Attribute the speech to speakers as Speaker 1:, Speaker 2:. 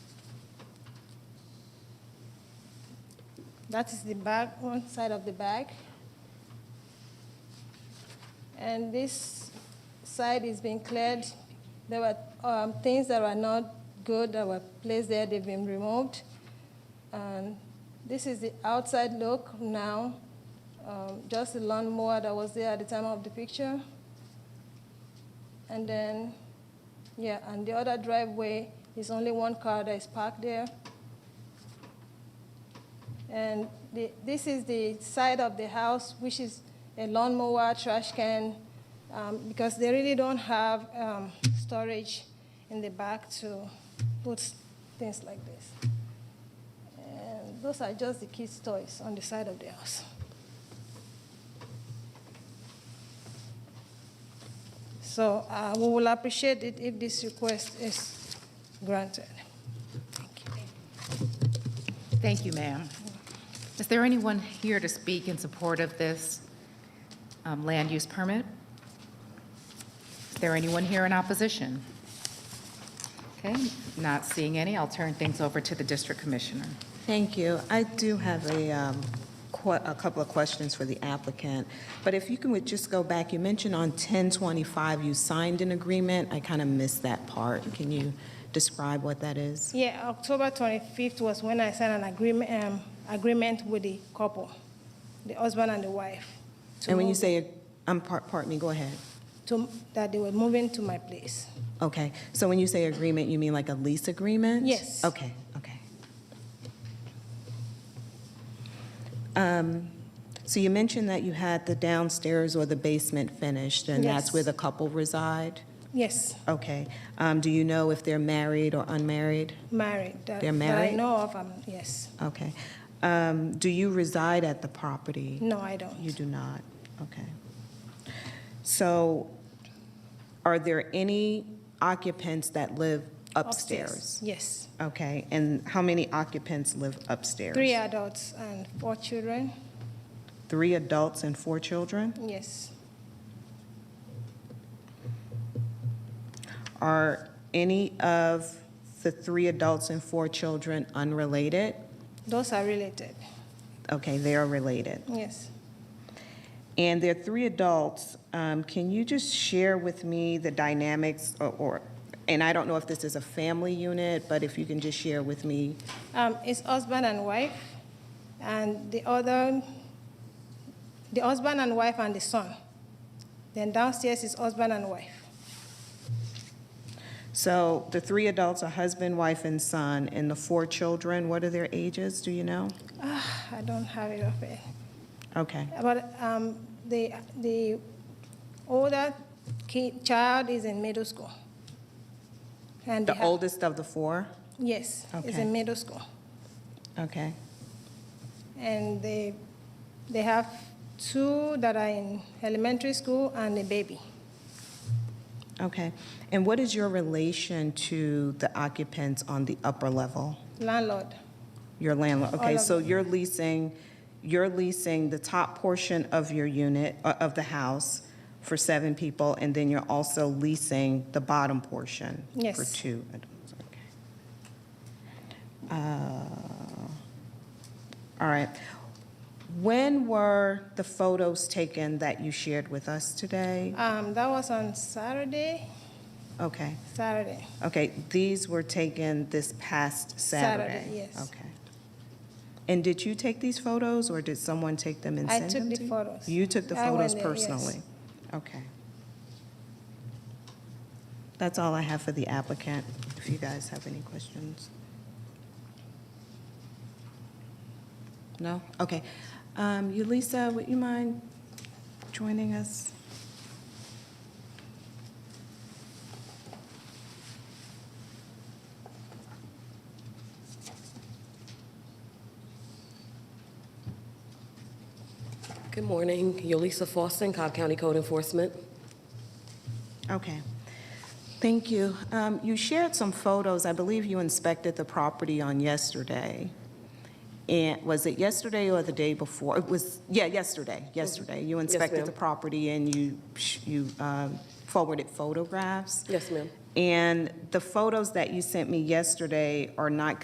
Speaker 1: That is the bag, one side of the bag. And this side is being cleared. There were um, things that were not good that were placed there, they've been removed. And this is the outside look now, um, just the lawnmower that was there at the time of the picture. And then, yeah, and the other driveway is only one car that is parked there. And the, this is the side of the house, which is a lawnmower, trash can, um, because they really don't have um, storage in the back to put things like this. And those are just the kids' toys on the side of the house. So uh, we will appreciate it if this request is granted. Thank you.
Speaker 2: Thank you, ma'am. Is there anyone here to speak in support of this um, land use permit? Is there anyone here in opposition? Okay, not seeing any, I'll turn things over to the district commissioner.
Speaker 3: Thank you. I do have a, um, que- a couple of questions for the applicant, but if you can would just go back, you mentioned on 1025 you signed an agreement. I kind of missed that part. Can you describe what that is?
Speaker 1: Yeah, October 25th was when I signed an agreement, um, agreement with the couple, the husband and the wife. to
Speaker 3: And when you
Speaker 1: move-
Speaker 3: say, um, par- pardon me, go ahead.
Speaker 1: To, that they were moving to my place.
Speaker 3: Okay, so when you say agreement, you mean like a lease agreement?
Speaker 1: Yes.
Speaker 3: Okay, okay. Um, So you mentioned that you had the downstairs or the basement finished, and that's
Speaker 1: Yes.
Speaker 3: where the couple reside?
Speaker 1: Yes,
Speaker 3: Okay. Um, Do you know if they're married or unmarried?
Speaker 1: married. That-
Speaker 3: They're
Speaker 1: That I
Speaker 3: married?
Speaker 1: know of, um, yes.
Speaker 3: Okay. Um, Do you reside at the property?
Speaker 1: No, I don't.
Speaker 3: You do not? Okay. So are there any occupants that live upstairs?
Speaker 1: Yes.
Speaker 3: Okay, and how many occupants live upstairs?
Speaker 1: Three adults and four children,
Speaker 3: Three adults and four children?
Speaker 1: yes.
Speaker 3: Are any of the three adults and four children unrelated?
Speaker 1: Those are related,
Speaker 3: Okay, they are related.
Speaker 1: yes.
Speaker 3: And there are three adults. Um, Can you just share with me the dynamics or- or, and I don't know if this is a family unit, but if you can just share with me,
Speaker 1: Um, it's husband and wife, and the other, the husband and wife and the son. Then downstairs is husband and wife.
Speaker 3: so the three adults are husband, wife, and son, and the four children, what are their ages, do you know?
Speaker 1: Ah, I don't have it up here.
Speaker 3: Okay,
Speaker 1: But um, the, the older kid, child is in middle school. And
Speaker 3: the
Speaker 1: ha-
Speaker 3: oldest of the four?
Speaker 1: Yes, is
Speaker 3: Okay.
Speaker 1: in middle school.
Speaker 3: Okay,
Speaker 1: And they, they have two that are in elementary school and a baby.
Speaker 3: okay. And what is your relation to the occupants on the upper level?
Speaker 1: Landlord,
Speaker 3: Your landlord, okay,
Speaker 1: of
Speaker 3: so you're leasing, you're leasing the top portion of your unit, uh, of the house for seven people, and then you're also leasing the bottom portion for
Speaker 1: Yes.
Speaker 3: two adults, okay. Uh, All right. When were the photos taken that you shared with us today?
Speaker 1: um, that was on Saturday,
Speaker 3: Okay,
Speaker 1: Saturday.
Speaker 3: okay, these were taken this past
Speaker 1: Saturday,
Speaker 3: Saturday?
Speaker 1: yes.
Speaker 3: Okay. And did you take these photos, or did someone take them and
Speaker 1: I
Speaker 3: send
Speaker 1: took
Speaker 3: them
Speaker 1: the
Speaker 3: to you?
Speaker 1: photos.
Speaker 3: You took the
Speaker 1: I went
Speaker 3: photos
Speaker 1: there, yes.
Speaker 3: personally? Okay. That's all I have for the applicant, if you guys have any questions. No? Okay. Um, Yulisa, would you mind joining us?
Speaker 4: Good morning, Yolisa Foster, Cobb County Code Enforcement.
Speaker 3: Okay. Thank you. Um, You shared some photos. I believe you inspected the property on yesterday. And was it yesterday or the day before? It was, yeah, yesterday, yesterday. You inspected
Speaker 4: ma'am.
Speaker 3: the property and you, sh- you um, forwarded photographs?
Speaker 4: Yes, ma'am.
Speaker 3: And the photos that you sent me yesterday are not